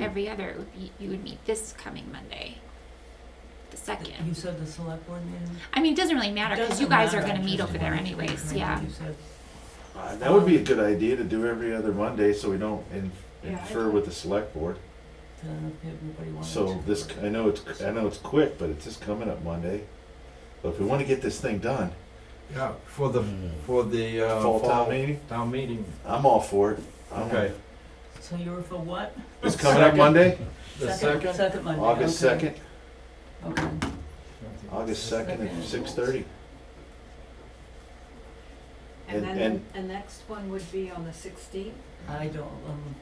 every other, it would be, you would meet this coming Monday, the You second. said the select board meeting? I mean, it doesn't really matter because you Doesn't guys are matter, gonna meet just over there wanted to anyways, confirm yeah. what you said. Uh, That would be a good idea to do every other Monday, so we don't in- infer with the select board. Then if everybody wanted So to- this, I know it's, I know it's quick, but it's just coming up Monday. But if we wanna get this thing done, Yeah, for the, for the, uh. fall town meeting, Town meeting, I'm all for it. I'm- okay. So you were for what? It's coming up Monday, The second? Second Monday. August okay. second, Okay. August second at Second. six thirty. And And- then the next one would be on the sixteenth? I don't, um,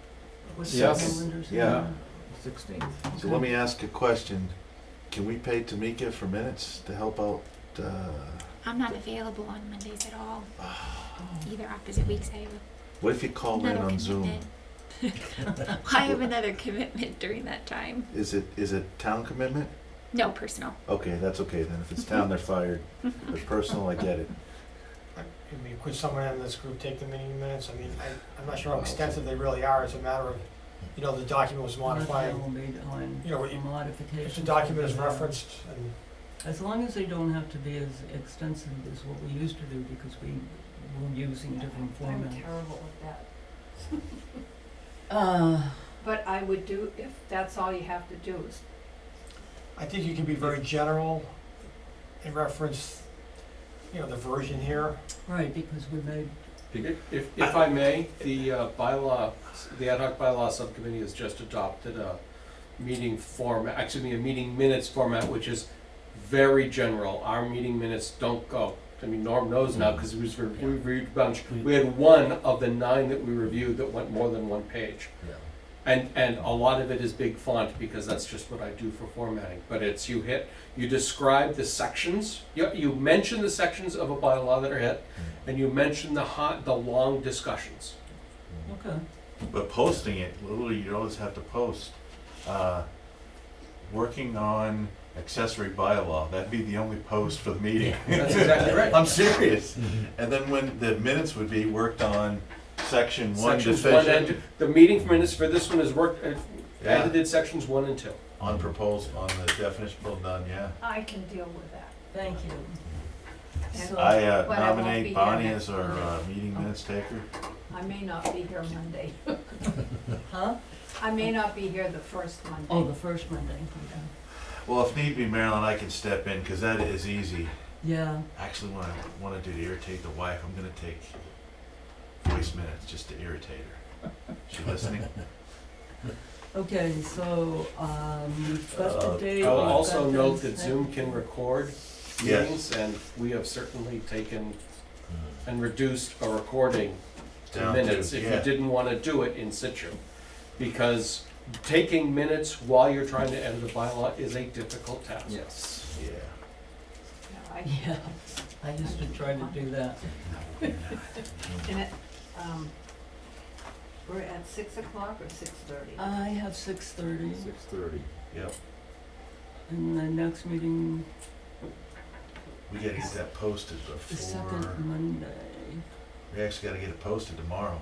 what's the Yes. calendar's Yeah. name? Sixteenth. So let me ask a question. Can we pay Tamika for minutes to help out, uh, I'm not available on Mondays at all, Oh. either opposite weeks, I have what if you call in another on Zoom? commitment. I have another commitment during that time, Is it, is it town commitment? no personal. Okay, that's okay then. If it's town, they're fired. If it's personal, I get it. I mean, could someone in this group take the meeting minutes? I mean, I, I'm not Oh, sure how extensive they really are, it's a matter of, you know, the document was modified, Nothing will be done. you know, A modification. if the document is referenced, and As long as they don't have to be as extensive as what we used to do because we were using different I'm formats. terrible at that, Uh, but I would do, if that's all you have to do is, I think you can be very general in reference, you know, the version here. right, because we made, If, if if I may, the uh, bylaw, the ad hoc bylaw subcommittee has just adopted a meeting form, excuse me, a meeting minutes format, which is very general. Our meeting minutes don't go, I mean, Norm knows now, Mm. because we was, re- we reviewed a bunch. We had one of the nine that we reviewed that went more than one page. And, and a lot of it is big font, because that's just what I do for formatting. But it's, you hit, you describe the sections, you, you mention the sections of a bylaw that are hit, Mm. and you mentioned the hot, the long discussions. okay, But posting it, literally, you always have to post. Uh, Working on accessory bylaw, that'd be the only post for the meeting. That's exactly right. I'm serious. And then when the minutes would be worked on section one Sections one and deficient two. The meeting minutes for this one is worked, uh, Yeah. edited sections one and two. on proposal, on the definition, well done, yeah. I can deal with that. thank you. And So- I uh, But I won't be nominate here Oh. Bonnie next as our uh, meeting minutes taker. I may not be here Monday. Huh? I may not be here the first Monday. Oh, the first Monday, okay. Well, if need be, Marilyn, I can step in, because that is easy. Yeah, Actually, what I want to do to irritate the wife, I'm going to take voice minutes just to irritate her. She listening? okay, so, um, we've got Uh, the date. I'll we've got also the note that second. Zoom can record Yes. meetings, and we have certainly taken and reduced a recording to Down to, minutes if you yeah. didn't want to do it in situ. Because taking minutes while you're trying to edit a bylaw is a difficult task. Yes. Yeah. No, I- Yeah, I used to try to do that. and it, um, We're at six o'clock or six thirty? I have six thirty, Six thirty. Yep. and the next meeting We got to get that posted The before. second Monday. We actually got to get it posted tomorrow.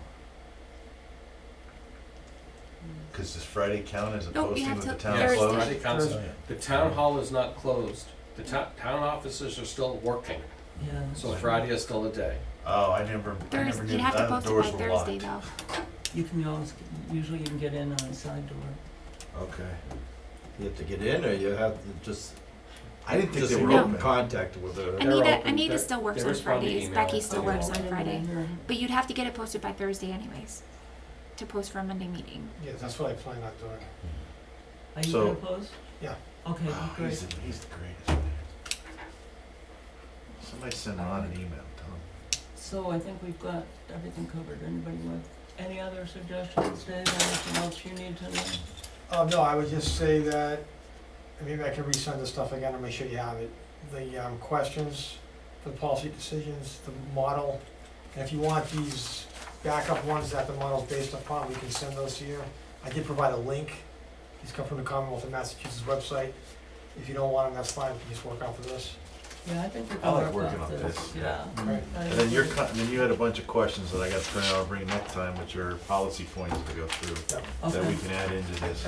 Because does Friday count as a Hmm. Nope, we posting have with till the town Thursday. closed? Friday council- Oh, yeah. The town hall is not closed. The town, town offices are still working, Yeah. so Friday is still a day. Oh, I never, I never Thursday, knew you'd have to that post the it by doors were Thursday locked. though. You can always, usually you can get in on a side door. Okay. You have to get in, or you have to just, I didn't think just they were No. open. in contact with her. They're Anita, open. Anita They're- still works they on respond to Fridays, email. Becky still Okay. works on Friday, Yeah. but you'd have to get it posted by Thursday anyways, to post for a Monday meeting. Yeah, that's what I plan on doing. Are you So- gonna post? Yeah. Okay, Oh, he's, great. the, he's the greatest. man. Somebody send Ron an email. Tell him. So I think we've got everything covered. Anybody with any other suggestions, Dave, anything else you need to know? Uh, no, I would just say that, and maybe I can resend this stuff again to make sure you have it. The, um, questions, the policy decisions, the model, and if you want these backup ones that the model's based upon, we can send those to you. I did provide a link, these come from the Commonwealth of Massachusetts website. If you don't want them, that's fine, we can just work off of this. Yeah, I think we I can like work working off on this, this. yeah. Right. I- And then you're cut, and then you had a bunch of questions that I got to print out and bring next time, which are policy points to go through that Okay. we can add into this.